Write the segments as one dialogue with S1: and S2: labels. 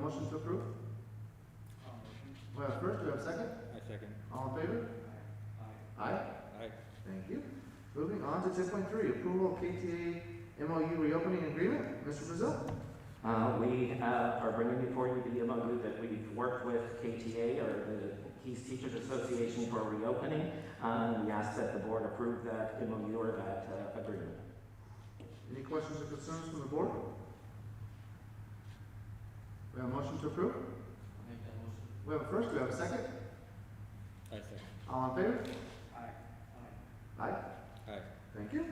S1: motion to approve? We have a first, do we have a second?
S2: I second.
S1: All in favor? Aye.
S2: Aye.
S1: Thank you. Moving on to ten point three, approval of KTA MOU reopening agreement. Mr. Brazil?
S3: Uh, we uh, are bringing before you the MOU that we've worked with KTA or the Keys Teachers Association for reopening. Uh, we ask that the board approve that MOU or that uh, agreement.
S1: Any questions or concerns from the board? We have a motion to approve? We have a first, we have a second?
S2: I second.
S1: All in favor? Aye.
S2: Aye.
S1: Thank you.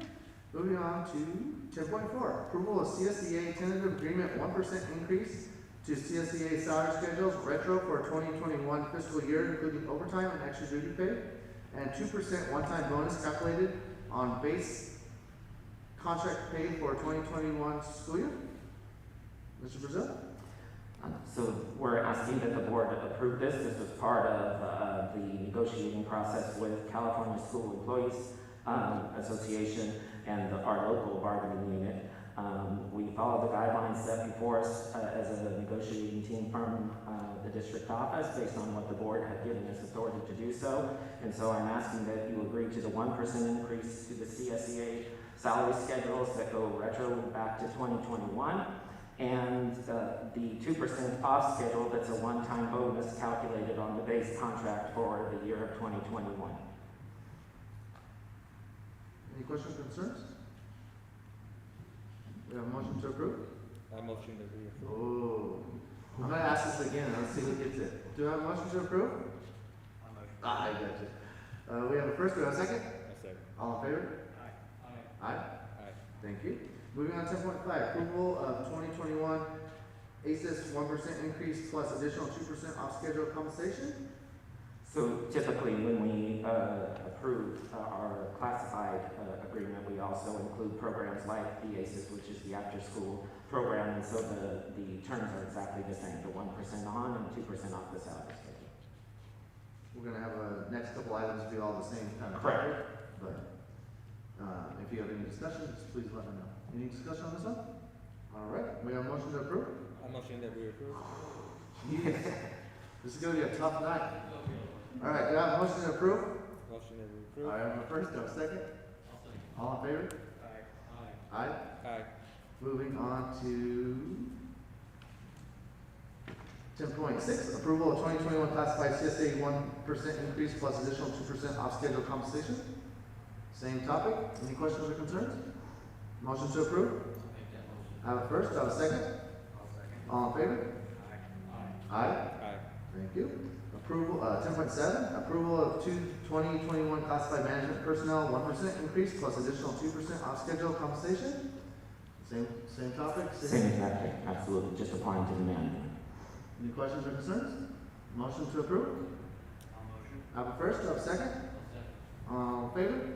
S1: Moving on to ten point four, approval of CSEA tentative agreement, one percent increase to CSEA salary schedules retro for twenty twenty-one fiscal year, including overtime and extra duty pay, and two percent one-time bonus calculated on base contract pay for twenty twenty-one school year. Mr. Brazil?
S3: Uh, So we're asking that the board approve this. This was part of uh, the negotiating process with California School Employees um, Association and the- our local bargaining unit. Um, We follow the guidelines set before us uh, as a negotiating team from uh, the district office based on what the board had given us authority to do so. And so I'm asking that you agree to the one percent increase to the CSEA salary schedules that go retro back to twenty twenty-one. And uh, the two percent off schedule, that's a one-time bonus calculated on the base contract for the year of twenty twenty-one.
S1: Any questions, concerns? We have a motion to approve?
S2: I motion that we approve.
S1: Oh, I'm gonna ask this again, let's see who gets it. Do I have a motion to approve? Ah, I got you. Uh, we have a first, we have a second?
S2: I second.
S1: All in favor? Aye.
S2: Aye.
S1: Thank you. Moving on to ten point five, approval of twenty twenty-one ACES one percent increase plus additional two percent off schedule compensation.
S3: So typically, when we uh, approve uh, our classified uh, agreement, we also include programs like the ACES, which is the after-school program, and so the, the terms are exactly the same, the one percent on and two percent off the salary schedule.
S1: We're gonna have a, next couple items be all the same kind of.
S3: Correct.
S1: topic, But, uh, if you have any discussions, please let me know. Any discussion on this one? All right, we have a motion to approve?
S2: I motion that we approve.
S1: This is gonna be a tough night. All right, do I have a motion to approve?
S2: Motion that we
S1: All right, I
S2: approve.
S1: have a first, I have a second. All in favor? Aye.
S2: Aye.
S1: Moving on to ten point six, approval of twenty twenty-one classified CSA one percent increase plus additional two percent off schedule compensation. Same topic, any questions or concerns? Motion to approve? I have a first, I have a second. All in favor? Aye.
S2: Aye.
S1: Thank you. Approval, uh, ten point seven, approval of two twenty twenty-one classified management personnel, one percent increase plus additional two percent off schedule compensation. Same, same topic,
S3: Same exact thing, absolutely, just applying to the management.
S1: Any questions or concerns? Motion to approve? I have a first, I have a second. All in favor?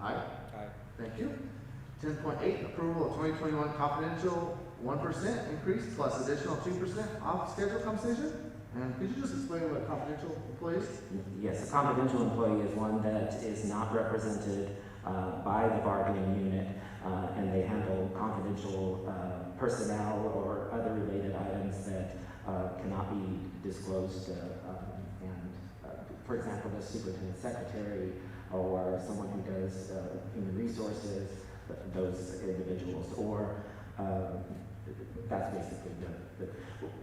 S1: Aye.
S2: Aye.
S1: Thank you. Ten point eight, approval of twenty twenty-one confidential one percent increase plus additional two percent off schedule compensation. And could you just explain what a confidential employee is?
S3: Yes, a confidential employee is one that is not represented uh, by the bargaining unit, uh, and they handle confidential uh, personnel or other related items that uh, cannot be disclosed. uh, um, And, uh, for example, the superintendent secretary or someone who does uh, human resources, th- those individuals, or um, that's basically the, the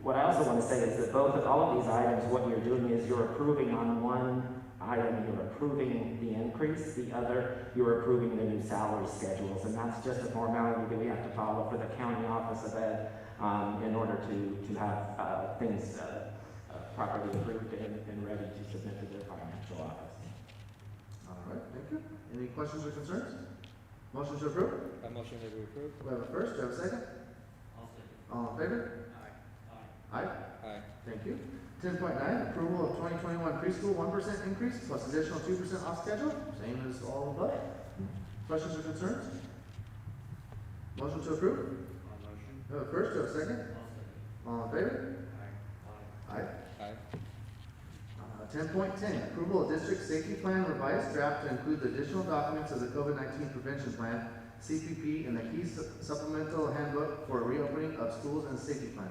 S3: what I also want to say is that both of all of these items, what you're doing is you're approving on one item, you're approving the increase, the other, you're approving the new salary schedules, and that's just a formality that we have to follow for the county office of ed um, in order to, to have uh, things uh, uh, properly approved and, and ready to submit to the financial office.
S1: All right, thank you. Any questions or concerns? Motion to approve?
S2: I motion that we approve.
S1: We have a first, we have a second. All in favor? Aye.
S2: Aye.
S1: Thank you. Ten point nine, approval of twenty twenty-one preschool one percent increase plus additional two percent off schedule, same as all above. Questions or concerns? Motion to approve? We have a first, we have a second. All in favor? Aye.
S2: Aye.
S1: Uh, ten point ten, approval of district safety plan revised draft to include the additional documents of the COVID nineteen prevention plan, CPP, and the key su- supplemental handbook for reopening of schools and safety plan.